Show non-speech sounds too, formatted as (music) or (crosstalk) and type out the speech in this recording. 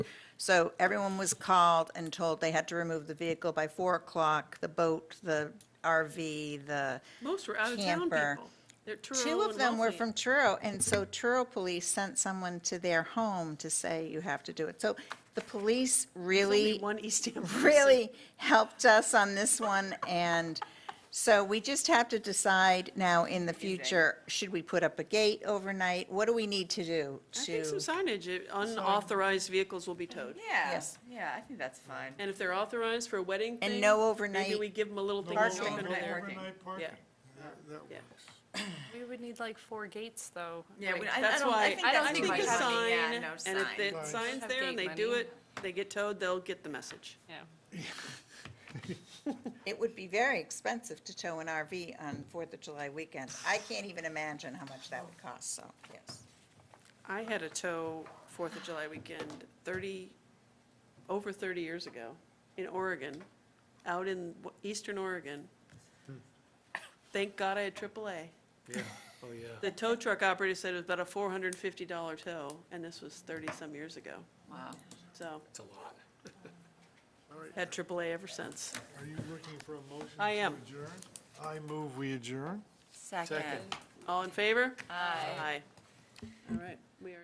So everyone was called and told they had to remove the vehicle by four o'clock, the boat, the RV, the, Most were out of town Camper. people. They're Truro two of and them were Waltham. from Truro. And so Truro police sent someone to their home to say, you have to do it. So the police There's only really One (laughs) East Hampton. person. really helped us on this one, and so we just have to decide now in the future, should we put up a gate overnight? What do we need to do I think some to? signage, uh, unauthorized vehicles will be towed. Yeah, Yes. yeah, I think that's fine. And if they're authorized for a wedding And thing, no Maybe overnight we give them a little thing to parking. stick under Overnight there. parking. parking. Yeah. That- that Yeah. works. We would need like four gates, though. Yeah, Like, we- I- I That's don't- I why, think I that- don't I think think a we have money, yeah, sign, no and if sign. the Right. sign's Have there and they gate do money. it, they get towed, they'll get the message. yeah. It would be very expensive to tow an RV on Fourth of July weekend. I can't even imagine how much that would cost, so, yes. I had a tow Fourth of July weekend, thirty, over thirty years ago, in Oregon, out in w- eastern Oregon. Thank God I had AAA. Yeah, oh, yeah. The tow truck operator said it was about a four hundred and fifty dollar tow, and this was thirty-some years ago, Wow. so, It's a lot. (laughs) All right, had AAA ever since. are you looking for a motion I to am. adjourn? I move we adjourn. Second. Second. All in favor? Aye. Aye. All right.